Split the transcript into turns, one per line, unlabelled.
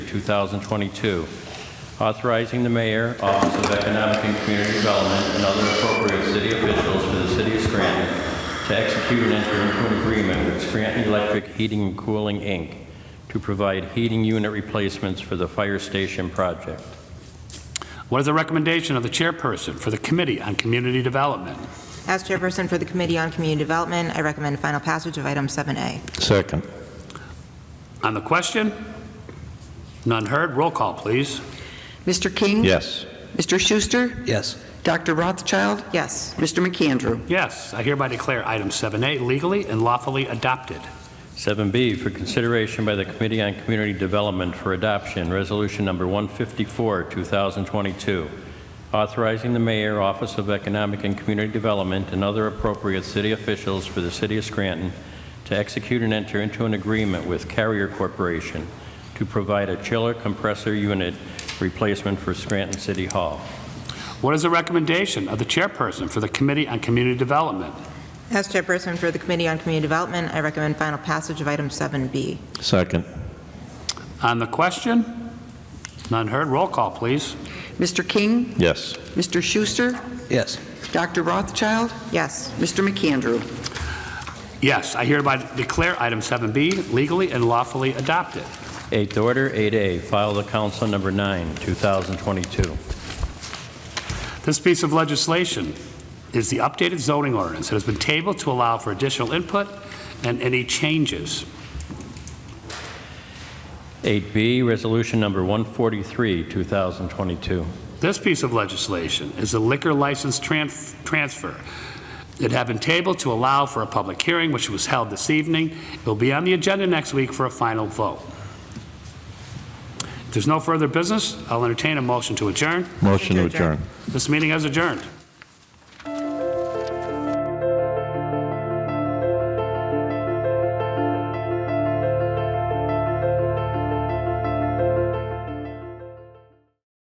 2022, authorizing the mayor, Office of Economic and Community Development, and other appropriate city officials for the city of Scranton to execute and enter into an agreement with Scranton Electric Heating and Cooling, Inc., to provide heating unit replacements for the fire station project.
What is the recommendation of the chairperson for the Committee on Community Development?
As chairperson for the Committee on Community Development, I recommend final passage of item 7A.
Second.
On the question? None heard. Roll call, please.
Mr. King?
Yes.
Mr. Schuster?
yes,
Dr. Rothschild?
Yes.
Mr. McAndrew?
Yes, I hereby declare item 7A legally and lawfully adopted.
7B for consideration by the Committee on Community Development for Adoption, Resolution Number 154, 2022, authorizing the mayor, Office of Economic and Community Development, and other appropriate city officials for the city of Scranton to execute and enter into an agreement with Carrier Corporation to provide a chiller compressor unit replacement for Scranton City Hall.
What is the recommendation of the chairperson for the Committee on Community Development?
As chairperson for the Committee on Community Development, I recommend final passage of item 7B.
Second.
On the question? None heard. Roll call, please.
Mr. King?
Yes.
Mr. Schuster?
yes,
Dr. Rothschild?
Yes.
Mr. McAndrew?
Yes, I hereby declare item 7B legally and lawfully adopted.
Eighth order, 8A, file the council number 9, 2022.
This piece of legislation is the updated zoning ordinance. It has been tabled to allow for additional input and any changes.
8B, Resolution Number 143, 2022.
This piece of legislation is a liquor license tran- transfer. It had been tabled to allow for a public hearing, which was held this evening. It will be on the agenda next week for a final vote. If there's no further business, I'll entertain a motion to adjourn.
Motion to
Adjourn.
adjourn.
This meeting is adjourned.